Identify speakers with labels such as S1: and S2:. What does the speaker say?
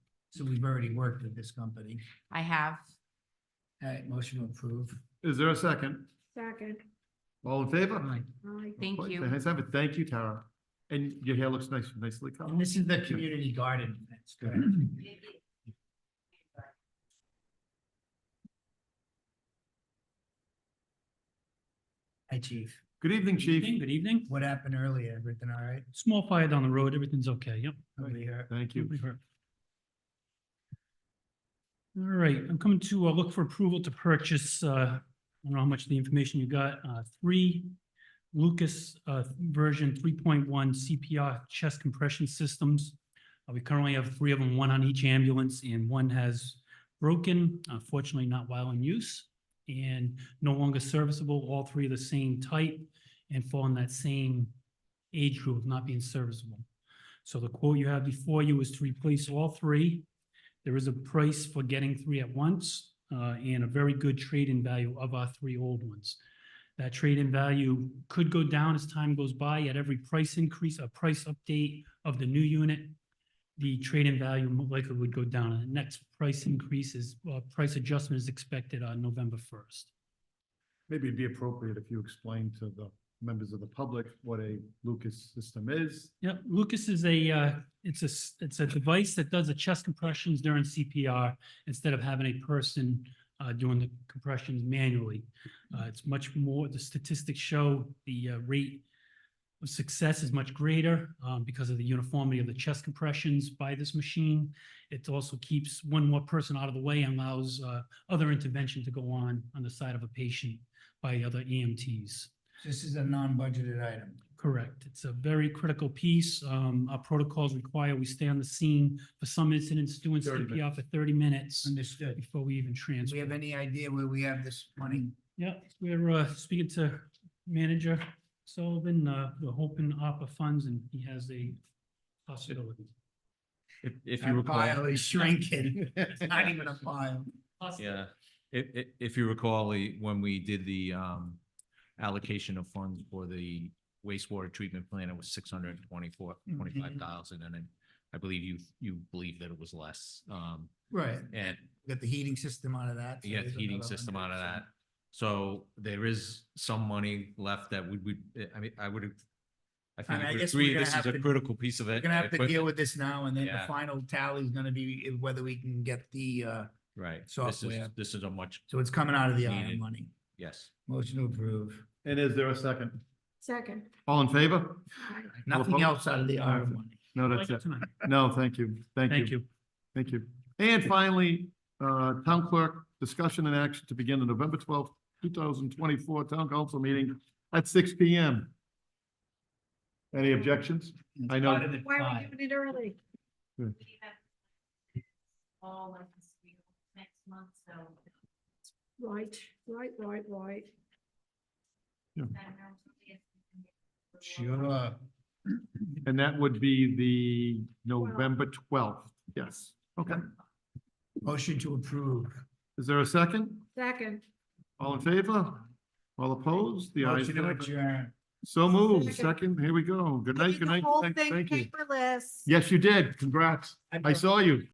S1: So we've already worked with this company.
S2: I have.
S1: All right, motion to approve.
S3: Is there a second?
S4: Second,
S3: All in favor?
S1: Aye.
S4: aye.
S2: Thank
S3: Okay,
S2: you.
S3: thanks, Evan. Thank you, Tara. And your hair looks nice, nicely cut.
S1: And this is the community garden. That's correct. Hi, chief.
S3: Good evening,
S5: Evening,
S3: chief.
S5: Good evening.
S1: What happened earlier? Everything all right?
S5: Small fire down the road, everything's okay, yep.
S1: Nobody hurt?
S3: Thank you.
S5: Nobody hurt. All right, I'm coming to uh, look for approval to purchase, uh, I don't know how much of the information you got, uh, three Lucas uh, version three point one CPR chest compression systems. Uh, We currently have three of them, one on each ambulance, and one has broken, unfortunately not while in use, and no longer serviceable, all three are the same type and fall in that same age group of not being serviceable. So the quote you have before you is to replace all three. There is a price for getting three at once, uh, and a very good trade-in value of our three old ones. That trade-in value could go down as time goes by at every price increase, a price update of the new unit. The trade-in value mo- likely would go down, and the next price increase is, uh, price adjustment is expected on November first.
S3: Maybe it'd be appropriate if you explained to the members of the public what a Lucas system is.
S5: Yep, Lucas is a, uh, it's a, s- it's a device that does the chest compressions during CPR instead of having a person uh, doing the compressions manually. Uh, It's much more, the statistics show the uh, rate of success is much greater um, because of the uniformity of the chest compressions by this machine. It also keeps one more person out of the way and allows uh, other intervention to go on on the side of a patient by other E EMTs.
S1: This is a non-budgeted item.
S5: Correct. It's a very critical piece. Um, our protocols require we stay on the scene for some incidents, doing
S3: 30
S5: CPR for thirty minutes
S1: Understood.
S5: before we even
S1: Do
S5: transfer.
S1: we have any idea where we have this money?
S5: Yeah, we're, uh, speaking to manager Sullivan, uh, we're hoping ARPA funds and he has a possibility.
S6: If, if you
S1: Our
S6: recall,
S1: pile is shrinking. It's not even a pile.
S6: yeah, if, if, if you recall, eh, when we did the, um, allocation of funds for the wastewater treatment plant, it was six hundred and twenty-four,
S1: Mm-hmm.
S6: twenty-five thousand, and then I believe you, you believe that it was less, um,
S1: Right.
S6: and
S1: We Got the heating system out of that. so
S6: you got
S1: there's
S6: the heating
S1: another
S6: system out
S1: 100,
S6: of
S1: so-
S6: that. So there is some money left that we would, eh, I mean, I would, I
S1: mean,
S6: think
S1: I
S6: we would
S1: guess we're
S6: agree,
S1: gonna
S6: this is
S1: have
S6: a
S1: to-
S6: critical piece of it.
S1: We're gonna have to deal
S6: equipment.
S1: with this now and then the
S6: Yeah.
S1: final tally is gonna be i- whether we can get the, uh,
S6: Right, this is,
S1: software.
S6: this is a much,
S1: so it's coming out of the
S6: Needed.
S1: iron money.
S6: yes.
S1: Motion to approve.
S3: And is there a second?
S4: Second,
S3: All in favor?
S4: aye.
S1: Nothing
S3: opposed?
S1: else out of the iron money.
S3: No, that's it. No, thank you. Thank you.
S5: Thank you.
S3: Thank you. And finally, uh, Town Clerk, discussion and action to begin the November twelfth, two thousand twenty-four Town Council meeting at six P M. Any objections? I know.
S1: Part of the
S4: Why are
S1: pie.
S4: we doing it early?
S7: we have all like this week, next month, so
S4: Right, right, right, right.
S7: I don't know if we can get-
S1: Sure.
S3: And that would be the November twelfth. Yes. Okay.
S1: Motion to approve.
S3: Is there a second?
S4: Second.
S3: All in favor? All opposed? The ayes
S1: Motion to
S3: have it.
S1: adjourn.
S3: So moved.
S4: Second.
S3: Second, here we go. Good night, good night. Thank- Thank you.
S4: Paperless.
S3: Yes, you did. Congrats. I saw you.